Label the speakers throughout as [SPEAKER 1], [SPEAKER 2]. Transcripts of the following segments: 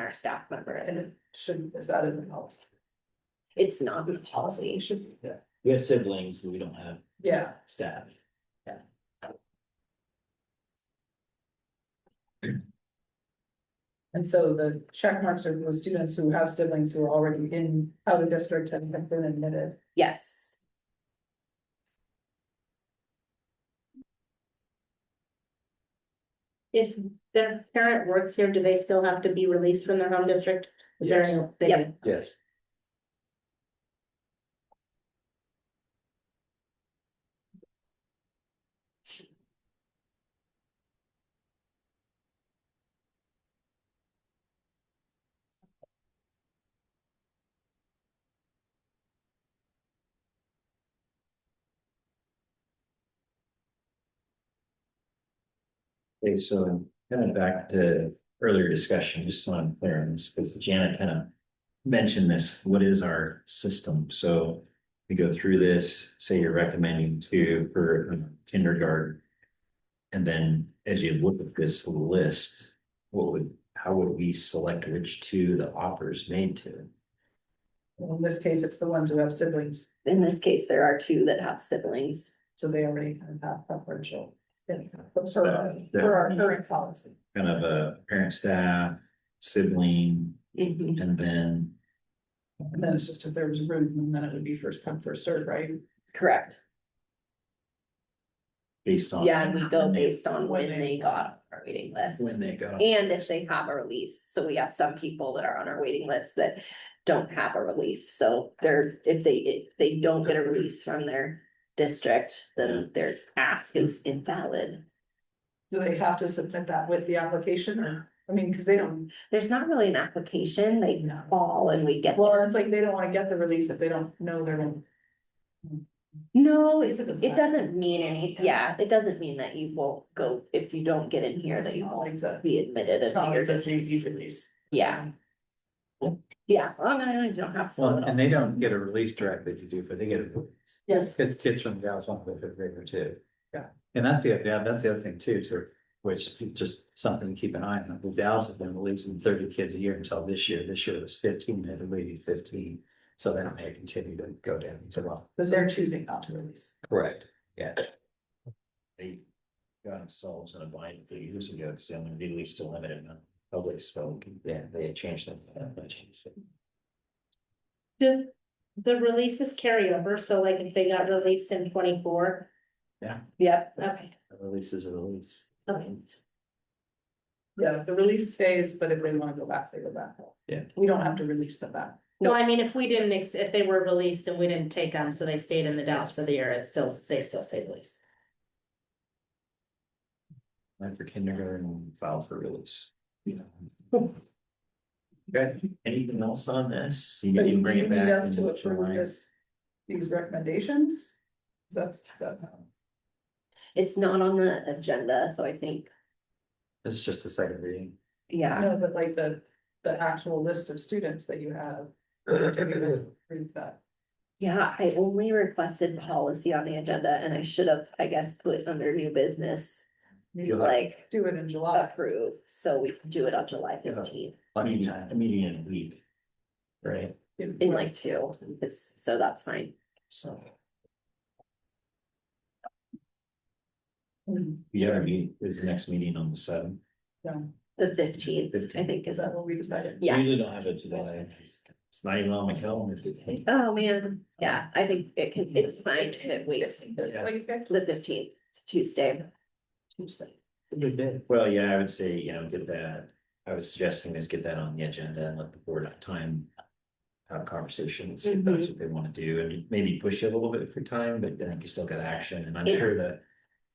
[SPEAKER 1] our staff members.
[SPEAKER 2] And it should, is that in the policy?
[SPEAKER 1] It's not in the policy.
[SPEAKER 2] It should, yeah,
[SPEAKER 3] We have siblings, but we don't have
[SPEAKER 2] yeah,
[SPEAKER 3] staff.
[SPEAKER 2] and so the check marks are the students who have siblings who are already in other districts and have been admitted.
[SPEAKER 1] Yes.
[SPEAKER 4] If their parent works here, do they still have to be released from their home district? Is there?
[SPEAKER 3] Yes.
[SPEAKER 4] any- they
[SPEAKER 1] Yep.
[SPEAKER 4] do?
[SPEAKER 3] Yes. Okay, so kind of back to earlier discussion, just so I'm clear on this, because Janet kind of mentioned this, what is our system? So we go through this, say you're recommending two for um, kindergarten. And then as you look at this list, what would, how would we select which two the offer is made to?
[SPEAKER 2] Well, In this case, it's the ones who have siblings,
[SPEAKER 1] In this case, there are two that have siblings.
[SPEAKER 2] so they already kind of have preferential. yeah, For
[SPEAKER 3] So, yeah.
[SPEAKER 2] for our current policy.
[SPEAKER 3] Kind of a parent, staff, sibling, and then.
[SPEAKER 2] And then it's just if there was room, and then it would be first come, first served, right?
[SPEAKER 1] Correct.
[SPEAKER 3] Based on.
[SPEAKER 1] Yeah, and we go
[SPEAKER 3] when they-
[SPEAKER 1] based on when they got on our waiting list.
[SPEAKER 3] When they go.
[SPEAKER 1] And if they have a release, so we have some people that are on our waiting list that don't have a release, so they're, if they, if they don't get a release from their. District, then their ask is invalid.
[SPEAKER 2] Do they have to submit that with the application or, I mean, because they don't,
[SPEAKER 1] There's not really an application, they
[SPEAKER 2] No.
[SPEAKER 1] call and we get,
[SPEAKER 2] well, it's like they don't want to get the release if they don't know they're going.
[SPEAKER 1] no, it
[SPEAKER 2] It doesn't
[SPEAKER 1] it doesn't mean any,
[SPEAKER 2] Yeah.
[SPEAKER 1] yeah, it doesn't mean that you won't go, if you don't get in here, that you won't
[SPEAKER 2] It's
[SPEAKER 1] be admitted.
[SPEAKER 2] not
[SPEAKER 1] into your
[SPEAKER 2] like this, you,
[SPEAKER 1] district.
[SPEAKER 2] you release.
[SPEAKER 1] Yeah, yeah, well, no, no, you don't have to.
[SPEAKER 5] Well, and they don't get a release directly to do, but they get a release.
[SPEAKER 4] Yes.
[SPEAKER 5] Cause kids from gals want to go to grader too.
[SPEAKER 2] Yeah.
[SPEAKER 5] And that's the, yeah, that's the other thing too, to, which is just something to keep an eye on. Well, Dallas has been releasing thirty kids a year until this year. This year was fifteen, they deleted fifteen. So then it may continue to go down as well.
[SPEAKER 2] But they're choosing not to release.
[SPEAKER 5] Correct. Yeah.
[SPEAKER 3] they got themselves in a bind a few years ago, because they only legally still have it in a public spoke, yeah, they had changed them. they changed it.
[SPEAKER 4] Do the releases carry over? So like if they got released in twenty-four?
[SPEAKER 1] Yep,
[SPEAKER 4] Okay,
[SPEAKER 5] A Release is a release.
[SPEAKER 4] okay.
[SPEAKER 2] Yeah, the release stays, but if they want to go back, they go back.
[SPEAKER 5] Yeah.
[SPEAKER 2] We don't have to release them back.
[SPEAKER 4] Well, I mean, if we didn't, ex- if they were released and we didn't take them, so they stayed in the Dallas for the year, it still, they still stay released.
[SPEAKER 3] Went for kindergarten, and filed for release. Okay, anything else on this? You
[SPEAKER 2] So
[SPEAKER 3] can
[SPEAKER 2] you
[SPEAKER 3] bring it
[SPEAKER 2] need
[SPEAKER 3] back.
[SPEAKER 2] us
[SPEAKER 3] and
[SPEAKER 2] to
[SPEAKER 3] look for
[SPEAKER 2] approve
[SPEAKER 3] mine.
[SPEAKER 2] this, these recommendations? That's, that,
[SPEAKER 1] it's not on the agenda, so I think,
[SPEAKER 5] This is just a second reading.
[SPEAKER 1] yeah.
[SPEAKER 2] no, but like the, the actual list of students that you have. have you approved that?
[SPEAKER 1] Yeah, I only requested policy on the agenda and I should have, I guess, put under new business,
[SPEAKER 2] Maybe
[SPEAKER 5] You'll have
[SPEAKER 1] like
[SPEAKER 2] Do it in July.
[SPEAKER 1] approve, so we can do it on July
[SPEAKER 3] Yeah.
[SPEAKER 1] fifteenth
[SPEAKER 5] plenty of
[SPEAKER 3] Meeting, a
[SPEAKER 5] time.
[SPEAKER 3] meeting in a week. Right,
[SPEAKER 1] in like two, It's- so that's fine.
[SPEAKER 3] so
[SPEAKER 2] Hmm,
[SPEAKER 3] we have a meeting, is the next meeting on the seventh?
[SPEAKER 1] The fifteenth, I
[SPEAKER 3] 15th.
[SPEAKER 1] think
[SPEAKER 2] Is
[SPEAKER 1] is,
[SPEAKER 2] that what we decided?
[SPEAKER 1] Yeah.
[SPEAKER 3] We Usually don't have a July, it's not even on my calendar.
[SPEAKER 1] oh man, yeah, I think it can, it's fine to wait
[SPEAKER 2] This
[SPEAKER 3] Yeah.
[SPEAKER 2] way, okay.
[SPEAKER 1] the fifteenth, Tuesday. Tuesday.
[SPEAKER 5] Good day.
[SPEAKER 3] Well, yeah, I would say, you know, get that, I was suggesting is get that on the agenda and let the board have time. Have conversations, if that's
[SPEAKER 1] Mm-hmm.
[SPEAKER 3] what they wanna do, and maybe push it a little bit for time, but I think you still got action, and I'm
[SPEAKER 1] Yeah.
[SPEAKER 3] sure that.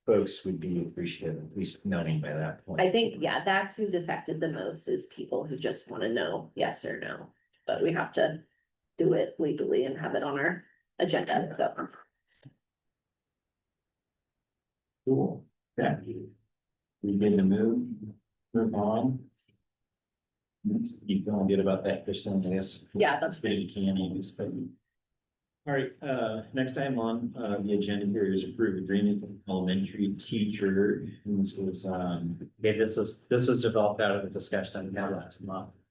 [SPEAKER 3] Folks would be appreciative, at least knowing by that point.
[SPEAKER 1] I think, yeah, that's who's affected the most is people who just wanna know yes or no, but we have to do it legally and have it on our agenda, so.
[SPEAKER 3] Cool, yeah. We good to move, move on. You feeling good about that, Kristen, I guess?
[SPEAKER 1] Yeah, that's
[SPEAKER 3] Bit of canning, it's been. All right, uh, next item on, uh, the agenda here is approved agreement with elementary teacher, and this was, um,
[SPEAKER 5] Okay, this was, this was developed out of the discussion we had last month.